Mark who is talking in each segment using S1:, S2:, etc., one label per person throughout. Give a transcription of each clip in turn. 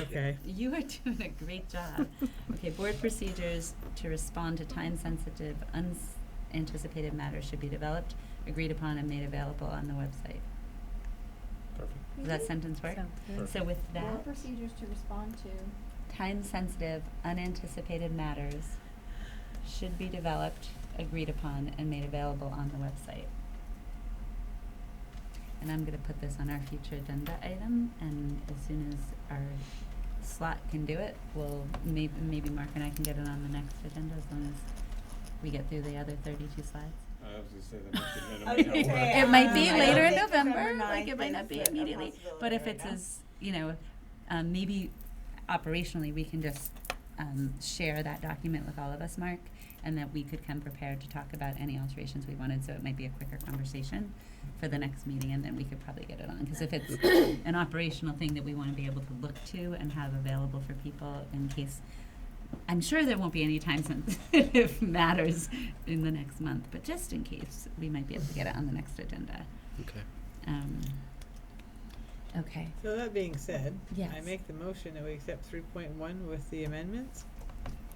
S1: Okay.
S2: You are doing a great job. Okay, board procedures to respond to time-sensitive, unanticipated matters should be developed, agreed upon, and made available on the website.
S3: Perfect.
S2: Does
S4: Mhm.
S2: that sentence work? So with
S4: More
S2: that,
S4: procedures to respond to.
S2: time-sensitive, unanticipated matters should be developed, agreed upon, and made available on the website. And I'm gonna put this on our future agenda item, and as soon as our slot can do it, we'll, may- maybe Mark and I can get it on the next agenda as long as we get through the other thirty-two slides.
S3: I was gonna say that must have been
S5: I
S3: a
S5: was
S3: minute
S5: gonna
S3: work.
S5: say,
S2: It might be
S5: um, I
S2: later
S5: don't
S2: in
S5: think
S2: November,
S5: November
S2: like it might
S5: 9th
S2: not be
S5: is a
S2: immediately,
S5: possibility
S2: but if
S5: right
S2: it's
S5: now.
S2: as, you know, um, maybe operationally, we can just, um, share that document with all of us, Mark, and that we could come prepared to talk about any alterations we wanted, so it might be a quicker conversation for the next meeting, and then we could probably get it on, cause if it's an operational thing that we wanna be able to look to and have available for people in case, I'm sure there won't be any time sensitive matters in the next month, but just in case, we might be able to get it on the next agenda.
S6: Okay.
S2: Um, okay.
S1: So that being said, I
S2: Yes.
S1: make the motion that we accept three point one with the amendments.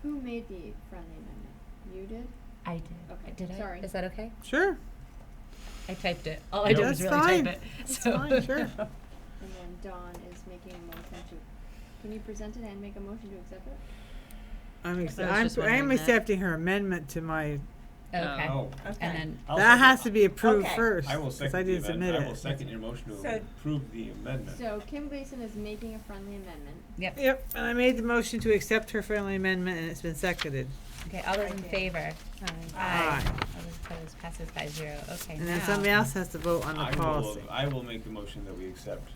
S4: Who made the friendly amendment? You did?
S2: I did.
S4: Okay,
S2: Did I?
S4: sorry.
S2: Is that okay?
S1: Sure.
S2: I typed it. All I
S3: Yep.
S2: did was
S1: That's
S2: really
S1: fine.
S2: type it.
S1: It's
S2: so
S1: fine, sure.
S4: And then Dawn is making a motion to, can you present it and make a motion to accept it?
S1: I'm,
S2: I
S1: acce-
S2: was just
S1: I'm, I'm
S2: wondering that.
S1: accepting her amendment to my,
S2: okay.
S3: Oh.
S2: And then
S3: I'll
S1: that
S3: second-
S1: has to be approved
S5: Okay.
S1: first,
S3: I will
S1: 'cause I
S3: second the
S1: didn't
S3: amendment,
S1: submit it.
S3: I will second your motion to
S5: So-
S3: approve the amendment.
S4: So Kim Gleason is making a friendly amendment.
S2: yep.
S1: Yep, and I made the motion to accept her friendly amendment and it's been seconded.
S2: Okay. All those
S5: I
S2: in
S5: did.
S2: favor.
S1: Aye.
S2: All those opposed. Passes by zero. Okay.
S1: And then
S2: now-
S1: somebody else has to vote on
S3: I
S1: the
S3: will,
S1: policy.
S3: I will make a motion that we accept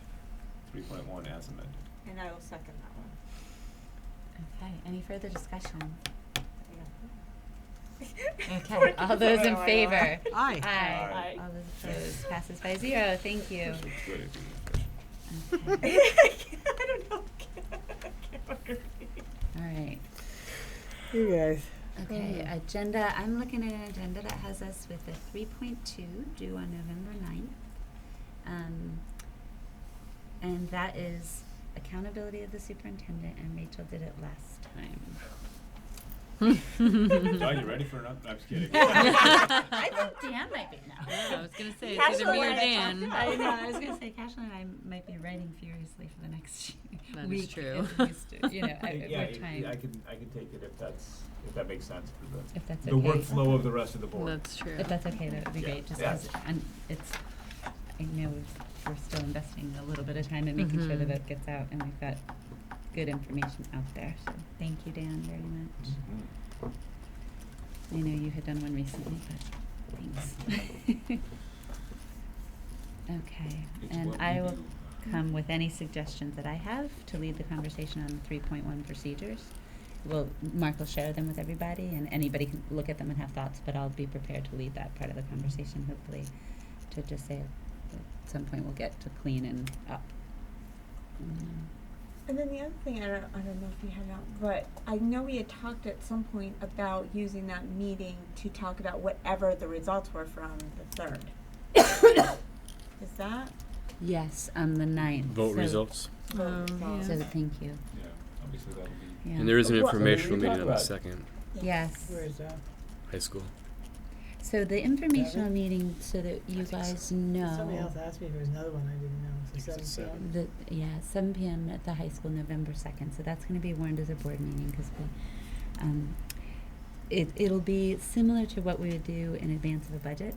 S3: three point one as amended.
S5: And I will second that one.
S2: Okay. Any further discussion?
S5: Yeah.
S2: Okay. all those in favor.
S1: Aye.
S3: Aye.
S2: All those opposed. Passes by zero. Thank you.
S3: This looks good if you refresh.
S2: Okay.
S5: I don't know. I can't agree.
S2: All right.
S1: You guys.
S2: Okay, agenda, I'm looking at an agenda that has us with a three point two due on November ninth. Um, and that is accountability of the superintendent, and Rachel did it last time.
S3: Dawn, you ready for an up, I'm just kidding.
S2: I think Dan might be now. I was gonna say,
S5: it's either me or Cashel and I Dan. talked about
S2: I
S5: it.
S2: know, I was gonna say, Cashel and I might be writing furiously for the next
S7: That is
S2: week.
S7: true.
S2: at least, You know,
S3: I-
S2: at
S3: yeah,
S2: what
S3: it-
S2: time,
S3: I can, I can take it if that's, if that makes sense for the,
S2: if that's okay.
S3: the workflow of the rest of the board.
S7: That's true.
S2: If that's okay, that would be
S3: Yeah.
S2: great, just
S3: Yeah.
S2: because it's, I know we've- we're still investing a little bit of time in making sure that
S7: Mhm.
S2: it gets out and we've got good information out there, so thank you, Dan, very much.
S3: Mm.
S2: I know you had done one recently, but thanks. Okay,
S3: It's
S2: and
S3: what we
S2: I will
S3: do.
S2: come with any suggestions that I have to lead the conversation on the three point one procedures. Well, Mark will share them with everybody and anybody can look at them and have thoughts, but I'll be prepared to lead that part of the conversation, hopefully, to just say at some point we'll get to clean and up. Mm,
S8: And then the other thing, I don't, I don't know if you had it out, but I know we had talked at some point about using that meeting to talk about whatever the results were from the third. Is that?
S2: Yes, on the ninth.
S6: Vote
S2: so-
S6: results.
S8: vote
S7: Oh,
S8: results?
S2: So, thank you,
S3: Yeah, obviously that'll be.
S2: yeah.
S6: And there is an
S3: Well, so what are
S6: informational
S3: we
S6: meeting
S3: talking
S6: on the
S3: about?
S6: second,
S2: Yes.
S1: Where is uh, that?
S6: high school.
S2: So the informational meeting, so that you
S1: think so.
S2: guys know.
S1: Somebody else asked me if there was another one I didn't know.
S6: I think
S1: It's
S6: it's
S1: seven
S6: at
S1: PM.
S2: The, yeah, seven PM at the high school, November second, so that's gonna be warned as a board meeting, cause we, um, it, it'll be similar to what we would do in advance of a budget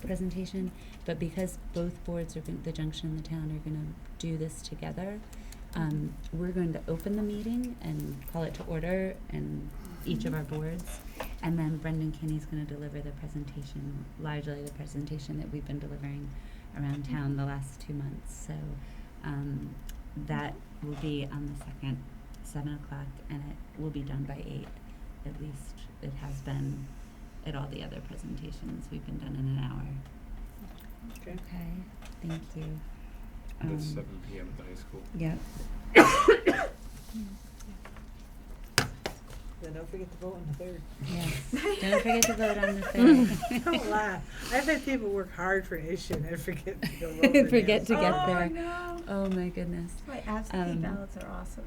S2: presentation, but because both boards are, gon- the junction and the town are gonna do this together, um, we're going to open the meeting and call it to order and each of our boards. And then Brendan Kinney's gonna deliver the presentation, largely the presentation that we've been delivering around town the last two months. So, um, that will be on the second, seven o'clock, and it will be done by eight. At least it has been at all the other presentations. We've been done in an hour.
S1: Okay.
S2: Okay, thank you.
S3: That's
S2: Um,
S3: seven PM at the high school.
S2: Yep.
S1: Then don't forget to vote on the third.
S2: Yes. Don't forget to vote on the third.
S1: Don't lie. I've had people work hard for an issue and then forget to go vote.
S2: Forget
S1: the
S2: to get
S8: oh,
S2: there.
S8: No.
S2: Oh my goodness.
S8: That's why absentee
S2: Um,
S8: ballots are awesome.